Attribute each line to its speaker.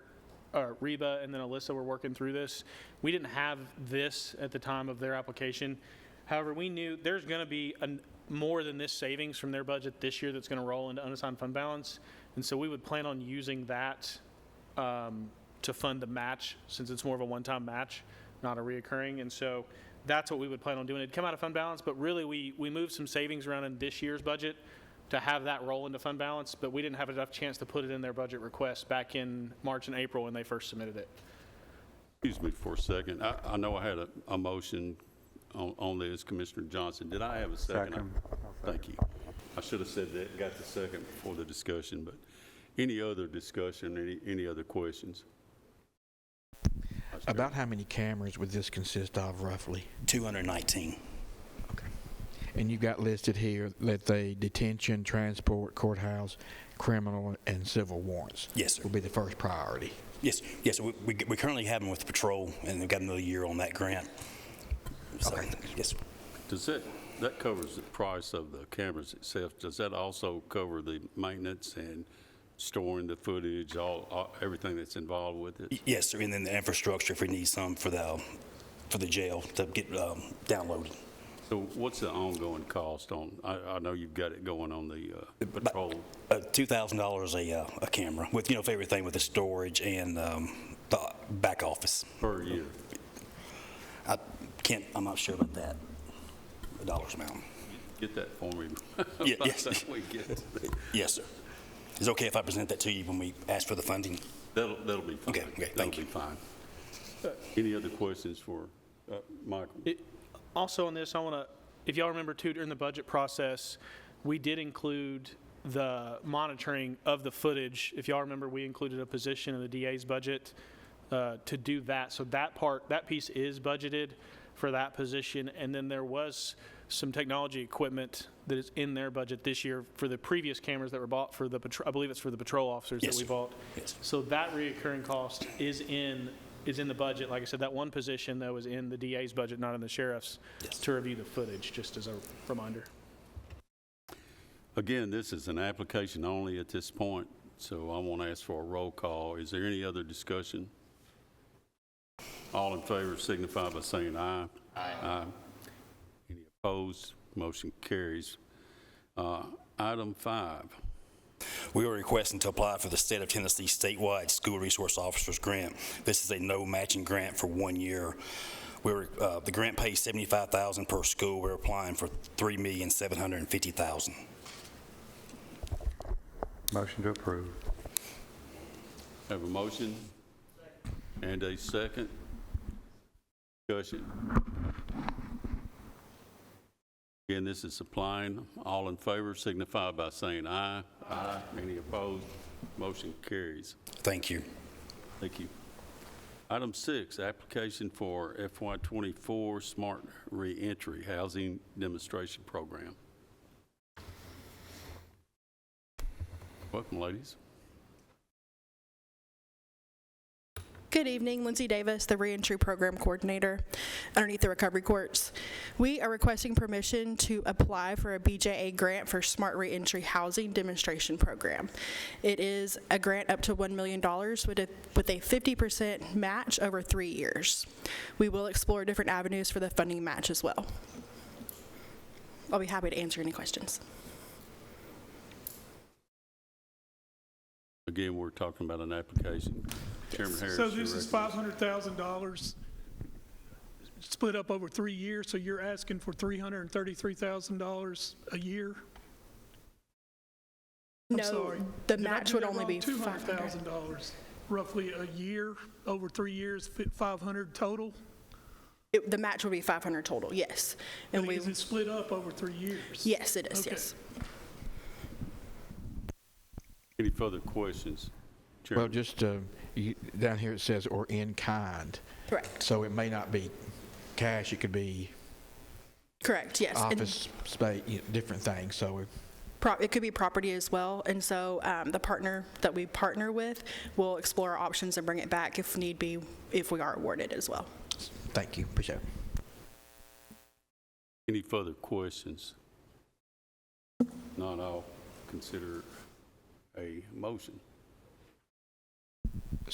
Speaker 1: uh, Reba and then Alyssa were working through this. We didn't have this at the time of their application. However, we knew there's going to be an- more than this savings from their budget this year that's going to roll into unassigned fund balance. And so we would plan on using that um, to fund the match, since it's more of a one-time match, not a reoccurring. And so that's what we would plan on doing. It'd come out of fund balance, but really, we, we moved some savings around in this year's budget to have that roll into fund balance, but we didn't have enough chance to put it in their budget request back in March and April when they first submitted it.
Speaker 2: Excuse me for a second. I, I know I had a, a motion on, on this, Commissioner Johnson. Did I have a second?
Speaker 3: Second.
Speaker 2: Thank you. I should have said that, got the second before the discussion, but any other discussion, any, any other questions?
Speaker 4: About how many cameras would this consist of roughly?
Speaker 5: 219.
Speaker 4: And you've got listed here that the detention, transport, courthouse, criminal, and civil warrants
Speaker 5: Yes, sir.
Speaker 4: will be the first priority.
Speaker 5: Yes, yes, we, we we currently have them with patrol, and we've got another year on that grant. So, Yes,
Speaker 2: Does that, that covers the price of the cameras itself. Does that also cover the maintenance and storing the footage, all, all- everything that's involved with it?
Speaker 5: yes, sir, and then the infrastructure, if we need some for the, um, for the jail to get um, downloaded.
Speaker 2: So what's the ongoing cost on, I, I know you've got it going on the uh, patrol.
Speaker 5: Uh, $2,000 a, uh, a camera, with, you know, for everything with the storage and um, the back office.
Speaker 2: Per year.
Speaker 5: I can't, I'm not sure about that, the dollars amount.
Speaker 2: Get that for me.
Speaker 5: Ye-
Speaker 2: By
Speaker 5: yes.
Speaker 2: the time we get it.
Speaker 5: Yes, sir. Is it okay if I present that to you when we ask for the funding?
Speaker 2: That'll, that'll be fine.
Speaker 5: Okay, okay, thank you.
Speaker 2: That'll be fine. Any other questions for uh, Michael?
Speaker 1: It- Also on this, I want to, if y'all remember too, during the budget process, we did include the monitoring of the footage. If y'all remember, we included a position in the DA's budget uh, to do that. So that part, that piece is budgeted for that position. And then there was some technology equipment that is in their budget this year for the previous cameras that were bought for the, patr- I believe it's for the patrol officers that
Speaker 5: Yes,
Speaker 1: we
Speaker 5: sir.
Speaker 1: bought.
Speaker 5: Yes.
Speaker 1: So that reoccurring cost is in, is in the budget. Like I said, that one position though is in the DA's budget, not in the sheriff's,
Speaker 5: Yes.
Speaker 1: to review the footage, just as a reminder.
Speaker 2: Again, this is an application only at this point, so I won't ask for a roll call. Is there any other discussion? All in favor signify by saying aye. Aye. Any opposed? Motion carries. Uh, Item five,
Speaker 5: We are requesting to apply for the State of Tennessee statewide School Resource Officers Grant. This is a no matching grant for one year. We're, uh, the grant pays seventy-five thousand per school. We're applying for three million, seven hundred and fifty thousand.
Speaker 3: Motion to approve.
Speaker 2: have a motion and a second. Discussion. Again, this is applying. All in favor signify by saying aye. Aye. Any opposed? Motion carries.
Speaker 5: Thank you.
Speaker 2: Thank you. Item six, application for FY '24 Smart Reentry Housing Demonstration Program. Welcome, ladies.
Speaker 6: Good evening, Lindsay Davis, the Reentry Program Coordinator underneath the Recovery Courts. We are requesting permission to apply for a BJA grant for Smart Reentry Housing Demonstration Program. It is a grant up to $1 million with a with a 50% match over three years. We will explore different avenues for the funding match as well. I'll be happy to answer any questions.
Speaker 2: Again, we're talking about an application. Chairman Harris.
Speaker 7: So
Speaker 2: you
Speaker 7: this is
Speaker 2: recognize-
Speaker 7: five hundred thousand dollars split up over three years, so you're asking for three hundred and thirty-three thousand dollars a year? I'm
Speaker 6: No,
Speaker 7: sorry.
Speaker 6: the
Speaker 7: Did I
Speaker 6: match
Speaker 7: do
Speaker 6: would
Speaker 7: that
Speaker 6: only
Speaker 7: wrong?
Speaker 6: be
Speaker 7: $200,000 roughly a year, over three years, fi- 500 total?
Speaker 6: It- The match would be 500 total, yes. And we.
Speaker 7: Is it split up over three years?
Speaker 6: Yes, it is,
Speaker 7: Okay.
Speaker 6: yes.
Speaker 2: Any further questions?
Speaker 4: Well,
Speaker 2: Chairman,
Speaker 4: just, uh, you- down here it says, or in kind.
Speaker 6: Correct,
Speaker 4: So it may not be cash, it could be
Speaker 6: correct, yes. And
Speaker 4: office space, you know, different things, so uh, it-
Speaker 6: pro- It could be property as well, and so um, the partner that we partner with will explore our options and bring it back if need be, if we are awarded as well.
Speaker 4: thank you, appreciate it.
Speaker 2: any further questions? Not all. Consider a motion.